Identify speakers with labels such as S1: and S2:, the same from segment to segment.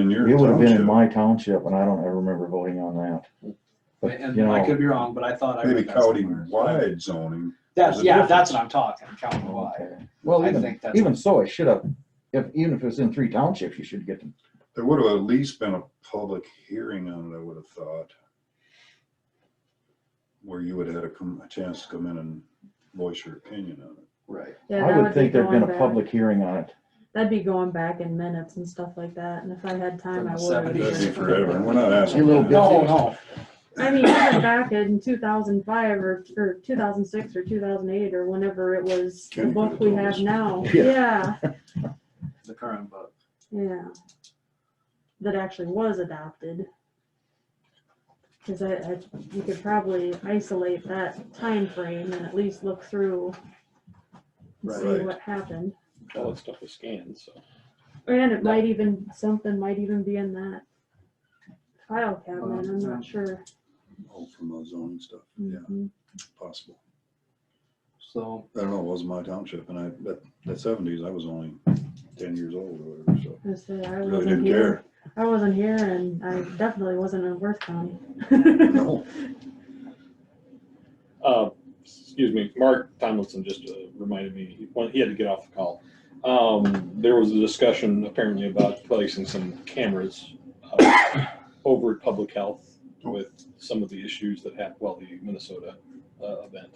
S1: in your
S2: It would have been
S1: township.
S2: in my township and I don't ever remember voting on that. But,
S3: And
S2: you
S3: I
S2: know,
S3: could be wrong, but I thought I
S1: Maybe
S3: read that somewhere.
S1: county-wide zoning,
S3: That's,
S1: There's a
S3: yeah,
S1: difference.
S3: that's what I'm talking, county wide.
S2: okay. Well,
S3: I
S2: even,
S3: think that's-
S2: even so, it should have, if, even if it's in three townships, you should get them.
S1: there would have at least been a public hearing on it, I would have thought. Where you would have had a com- a chance to come in and voice your opinion on it.
S3: Right.
S2: I would think there'd been a
S4: public.
S2: public hearing on it.
S4: That'd be going back in minutes and stuff like that, and if I had time,
S3: From
S4: I
S3: the
S4: would.
S3: 70s.
S1: That'd be
S4: have.
S1: forever, and we're not asking.
S2: You little
S1: for that.
S3: No, no,
S4: I mean, even back in two thousand five or, or two thousand six or two thousand eight or whenever it was, the
S1: Kenny
S4: book
S1: could've
S4: we
S1: told
S4: have
S1: us.
S4: now,
S2: Yeah.
S4: yeah,
S3: the current book.
S4: yeah. That actually was adopted. Cause I, I, you could probably isolate that time frame and at least look through and see
S1: Right.
S4: what happened.
S5: all that stuff was scanned, so.
S4: And it might even, something might even be in that file cabinet, I'm not sure.
S1: All from the zoning stuff,
S2: Hmm.
S1: yeah,
S4: Mhm.
S1: possible.
S3: So,
S1: I don't know, it wasn't my township, and I, that, that seventies, I was only ten years old or whatever, so
S4: I say, I
S1: really
S4: wasn't
S1: didn't
S4: here,
S1: care.
S4: I wasn't here and I definitely wasn't in Worth County.
S1: No,
S5: Uh, excuse me, Mark Tomlinson just uh, reminded me, he wanted- he had to get off the call. Um, there was a discussion apparently about placing some cameras uh, over at Public Health with some of the issues that happened, well, the Minnesota uh, event.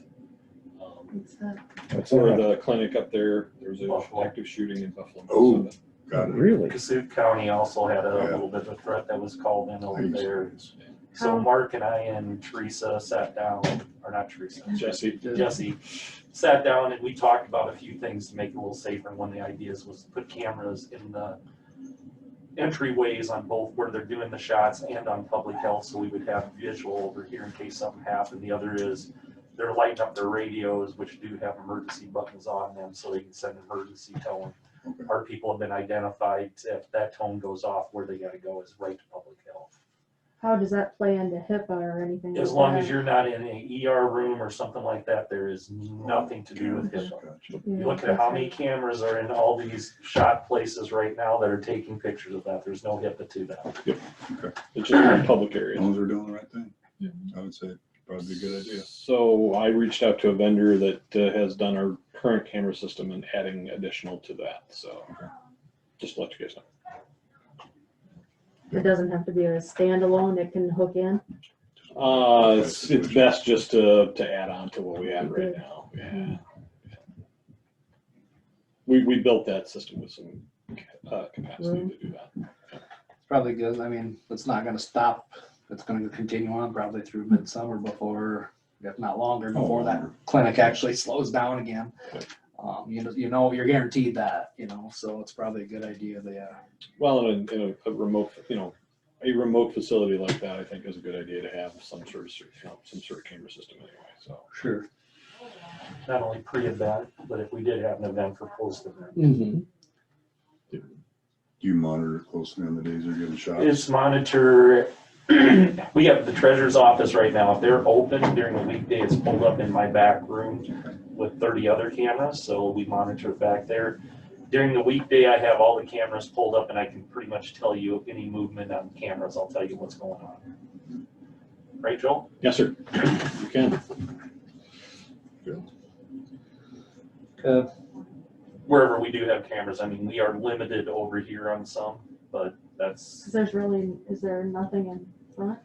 S5: Um,
S4: It's, uh,
S2: That's
S5: Or
S2: all right.
S5: the clinic up there, there was an active shooting in Buffalo.
S1: Oh.
S5: Minnesota.
S1: got it.
S2: Really?
S6: Cassup County also had a
S1: Yeah.
S6: little bit of a threat that was called in over
S4: How-
S6: there. So Mark and I and Teresa sat down, or not Teresa,
S5: Jesse,
S6: Jesse, sat down and we talked about a few things to make it a little safer. And One of the ideas was to put cameras in the entryways on both where they're doing the shots and on public health, so we would have visual over here in case something happened. The other is they're lighting up their radios, which do have emergency buttons on them, so they can send emergency tone.
S1: Okay.
S6: Our people have been identified, if that tone goes off, where they gotta go is right to public health.
S4: How does that play into HIPAA or anything?
S6: As long as you're not in an ER room or something like that, there is nothing to do with HIPAA.
S1: Gotcha.
S6: You look at how many cameras are in all these shot places right now that are taking pictures of that. There's no HIPAA to that.
S5: it's just a public
S1: As
S5: area.
S1: long as they're doing the right thing,
S4: Yeah.
S1: I would say probably a good idea.
S5: So I reached out to a vendor that uh, has done our current camera system and adding additional to that, so. Just to let you guys know.
S4: It doesn't have to be a standalone, it can hook in.
S5: Uh, it's, it's best just to, to add on to what we have right now, yeah. We, we built that system with some, uh, capacity to do that.
S3: it's probably good, I mean, it's not gonna stop, it's gonna continue on probably through midsummer before, if not longer, before that
S1: Oh.
S3: clinic actually slows down again. Um, you know, you know, you're guaranteed that, you know, so it's probably a good idea, they, uh,
S5: Well, in a, in a- a remote, you know, a remote facility like that, I think is a good idea to have some sort of, you know, some sort of camera system anyway, so.
S3: sure.
S6: Not only pre-event, but if we did have an event for post-event.
S3: Mm-hmm.
S1: Do you monitor it closely on the days they're giving shots?
S6: It's monitor, we have the treasurer's office right now. If they're open during the weekday, it's pulled up in my back room with thirty other cameras, so we monitor back there. During the weekday, I have all the cameras pulled up and I can pretty much tell you any movement on cameras. I'll tell you what's going on. Right, Joel?
S5: Yes, sir. You can.
S3: Uh,
S6: wherever we do have cameras, I mean, we are limited over here on some, but that's,
S4: There's really, is there nothing in front?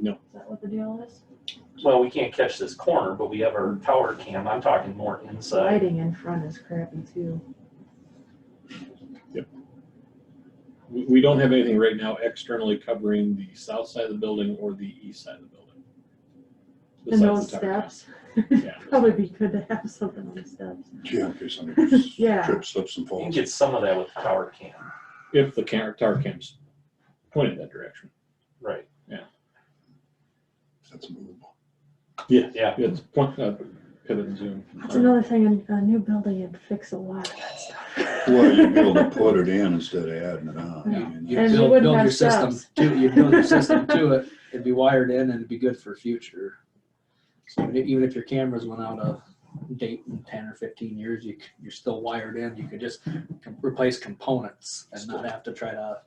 S5: No.
S4: Is that what the deal is?
S6: well, we can't catch this corner, but we have our tower cam. I'm talking more inside.
S4: Lighting in front is crappy too.
S5: We, we don't have anything right now externally covering the south side of the building or the east side of the building.
S4: And those
S5: Besides the tower.
S4: steps,
S5: Yeah.
S4: probably be good to have something on the steps.
S1: Yeah, in case somebody
S4: Yeah.
S1: trips, slips and
S6: You can
S1: falls.
S6: get some of that with the tower cam,
S5: If the car, tower cam's pointed that direction.
S6: right?
S1: That's movable.
S5: Yeah.
S6: Yeah.
S5: It's point, uh, pivot and zoom.
S4: That's another thing, a, a new building, it'd fix a lot of that stuff.
S1: Well, you'd be able to put it in instead of adding it on. I
S3: Yeah.
S1: mean,
S3: You
S4: And you
S3: build,
S4: wouldn't
S3: build
S4: have
S3: your system
S4: steps.
S3: to, you build your system to it, it'd be wired in and it'd be good for future. So even if- even if your cameras went out of date in ten or fifteen years, you, c- you're still wired in, you could just com- replace components and not have to try to